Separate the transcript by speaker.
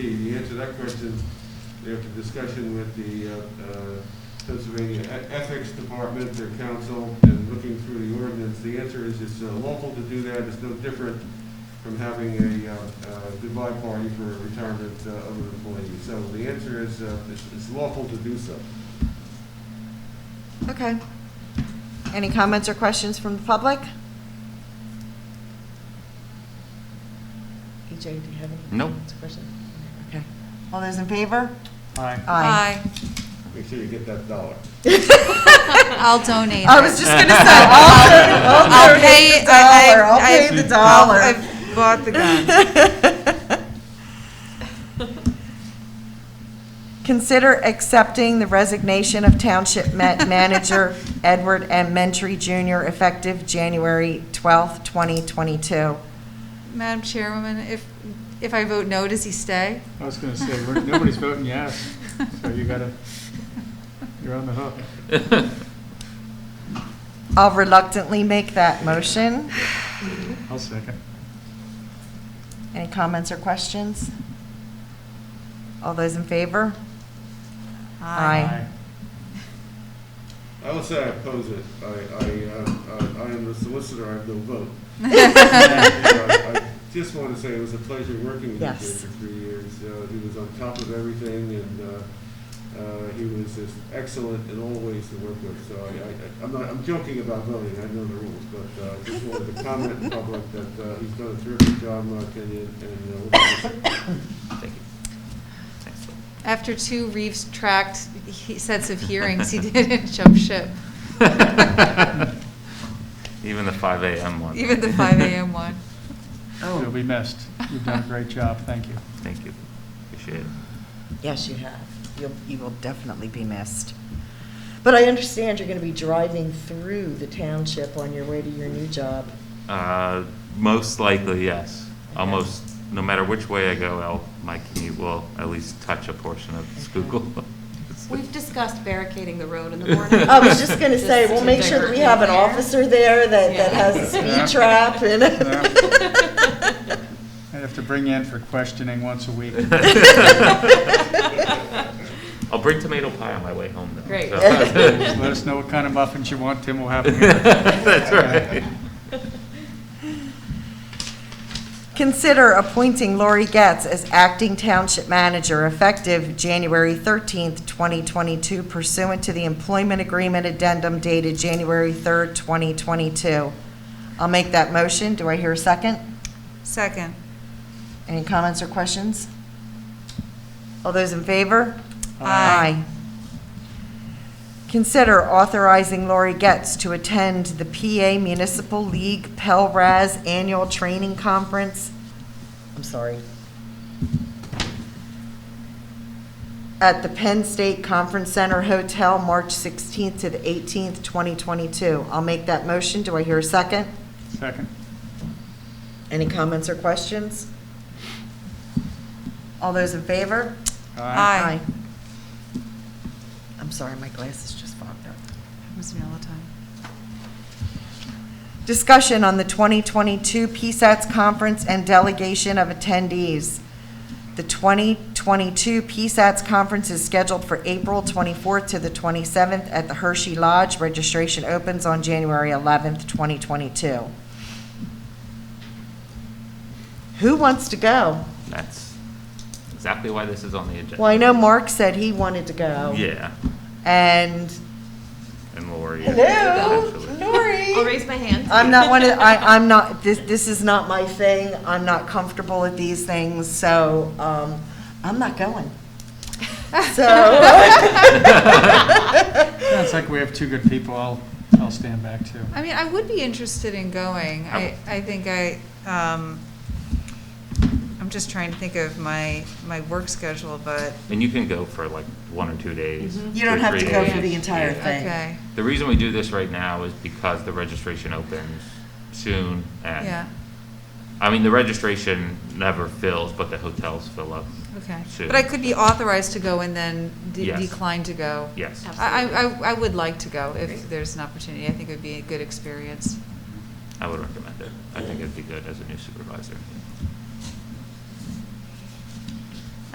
Speaker 1: the answer to that question, after discussion with the uh, uh, Pennsylvania E- Ethics Department, their council, and looking through the ordinance, the answer is it's uh, lawful to do that, it's no different from having a uh, uh, goodbye party for a retirement uh, of an employee. So the answer is, uh, it's it's lawful to do so.
Speaker 2: Okay. Any comments or questions from the public? EJ, do you have any?
Speaker 3: No.
Speaker 2: comments or questions? Okay. All those in favor?
Speaker 4: Aye.
Speaker 2: Aye.
Speaker 1: Make sure you get that dollar.
Speaker 5: I'll donate.
Speaker 2: I
Speaker 5: it.
Speaker 2: was just gonna say, I'll, I'll
Speaker 5: I'll pay-
Speaker 2: pay the
Speaker 5: I- I-
Speaker 2: dollar, I'll
Speaker 5: I-
Speaker 2: pay the dollar.
Speaker 5: I've bought the gun.
Speaker 2: Consider accepting the resignation of Township Ma- Manager Edward M. Mentry Jr. effective January 12th, 2022.
Speaker 5: Madam Chairwoman, if, if I vote no, does he stay?
Speaker 4: I was gonna say, we're- nobody's voting yes, so you gotta, you're on the hook.
Speaker 2: I'll reluctantly make that motion.
Speaker 4: I'll second.
Speaker 2: Any comments or questions? All those in favor? Aye.
Speaker 1: I will say I oppose it. I, I, uh, I, I am the solicitor, I have no vote. I I Just want to say it was a pleasure working with you
Speaker 2: Yes.
Speaker 1: for three years. Uh, He was on top of everything, and uh, uh, he was just excellent in all ways to work with. So I, I- I'm not, I'm joking about voting, I know the rules, but uh, I just wanted to comment in public that uh, he's done a terrific job, in my opinion, and uh, we'll miss him.
Speaker 3: Thank you. Thanks.
Speaker 5: After two Reeves tracked he- sets of hearings, he didn't jump ship.
Speaker 3: Even the 5 AM one.
Speaker 5: Even the 5 AM one.
Speaker 4: You'll be missed. You've done a great job, thank you.
Speaker 3: Thank you. Appreciate it.
Speaker 2: Yes, you have. You'll, you will definitely be missed. But I understand you're going to be driving through the township on your way to your new job.
Speaker 3: Uh, Most likely, yes. Almost, no matter which way I go, I'll, my commute will at least touch a portion of Schuylkill.
Speaker 6: We've discussed barricading the road in the morning.
Speaker 2: I was just going to say, we'll
Speaker 6: Just
Speaker 2: make sure that we have an
Speaker 6: there.
Speaker 2: officer there that, that has a
Speaker 4: Yeah.
Speaker 2: speed trap and.
Speaker 4: I have to bring you in for questioning once a week.
Speaker 3: I'll bring tomato pie on my way home, though.
Speaker 6: Great.
Speaker 3: so-
Speaker 4: Just Let us know what kind of muffins you want, Tim will have them. here.
Speaker 3: That's right.
Speaker 2: Consider appointing Lori Getz as acting township manager effective January 13th, 2022 pursuant to the employment agreement addendum dated January 3rd, 2022. I'll make that motion. Do I hear a second?
Speaker 5: Second.
Speaker 2: Any comments or questions? All those in favor?
Speaker 5: Aye.
Speaker 2: Consider authorizing Lori Getz to attend the PA Municipal League Pelraz Annual Training Conference. I'm sorry. At the Penn State Conference Center Hotel, March 16th to the 18th, 2022. I'll make that motion. Do I hear a second?
Speaker 4: Second.
Speaker 2: Any comments or questions? All those in favor?
Speaker 5: Aye.
Speaker 2: I'm sorry, my glasses just fogged up.
Speaker 5: Happens to me all the time.
Speaker 2: Discussion on the 2022 PSATS Conference and Delegation of Attendees. The 2022 PSATS Conference is scheduled for April 24th to the 27th at the Hershey Lodge. Registration opens on January 11th, 2022. Who wants to go?
Speaker 3: That's exactly why this is on the agenda.
Speaker 2: Well, I know Mark said he wanted to go.
Speaker 3: Yeah,
Speaker 2: And
Speaker 3: and Lori.
Speaker 2: Hello,
Speaker 3: potentially.
Speaker 6: I'll
Speaker 2: Nori.
Speaker 6: raise my hand.
Speaker 2: I'm not one of, I, I'm not, this, this is not my thing. I'm not comfortable with these things, so, um, I'm not going. So,
Speaker 4: Sounds like we have two good people, I'll, I'll stand back too.
Speaker 5: I mean, I would be interested in going. I, I think I, um, I'm just trying to think of my, my work schedule, but,
Speaker 3: And you can go for like one or two days.
Speaker 4: Mm-hmm.
Speaker 2: you don't
Speaker 3: two or
Speaker 2: have to
Speaker 3: three
Speaker 2: go for
Speaker 3: days.
Speaker 2: the entire
Speaker 3: Yeah.
Speaker 2: thing.
Speaker 5: okay.
Speaker 3: The reason we do this right now is because the registration opens soon and.
Speaker 5: Yeah,
Speaker 3: I mean, the registration never fills, but the hotels fill up.
Speaker 5: okay.
Speaker 3: soon.
Speaker 5: But I could be authorized to go and then de-
Speaker 3: Yes.
Speaker 5: decline to go.
Speaker 3: Yes.
Speaker 5: I, I, I- I would like to go if there's an opportunity. I think it would be a good experience.
Speaker 3: I would recommend it. I think it'd be good as a new supervisor.